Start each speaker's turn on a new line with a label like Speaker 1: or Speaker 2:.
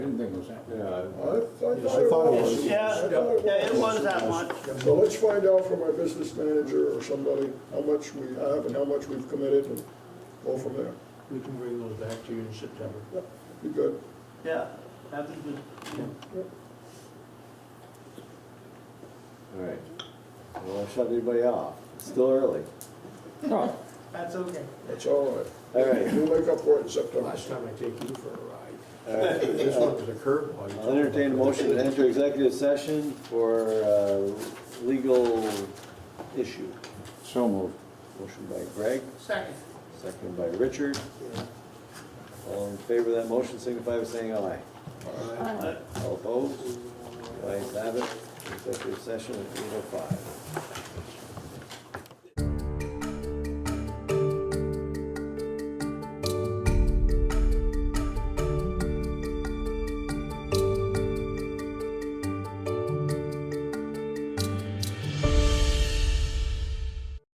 Speaker 1: I thought it was.
Speaker 2: Yeah, yeah, it was that much.
Speaker 1: So let's find out from our business manager or somebody how much we have and how much we've committed and go from there.
Speaker 3: We can bring those back to you in September.
Speaker 1: Be good.
Speaker 2: Yeah, that was good.
Speaker 4: All right. I don't want to shut anybody off. It's still early.
Speaker 2: That's okay.
Speaker 1: That's all right.
Speaker 4: All right.
Speaker 1: We'll make up for it in September.
Speaker 3: Last time I take you for a ride.
Speaker 4: All right.
Speaker 3: This one was a curveball. You
Speaker 4: I'll entertain a motion to enter executive session for uh, legal issue. So moved. Motion by Greg,
Speaker 2: Second.
Speaker 4: second by Richard. All in favor of that motion signify by saying aye.
Speaker 2: Aye.
Speaker 4: All opposed? The Ayes have it. Executive session at eight oh five.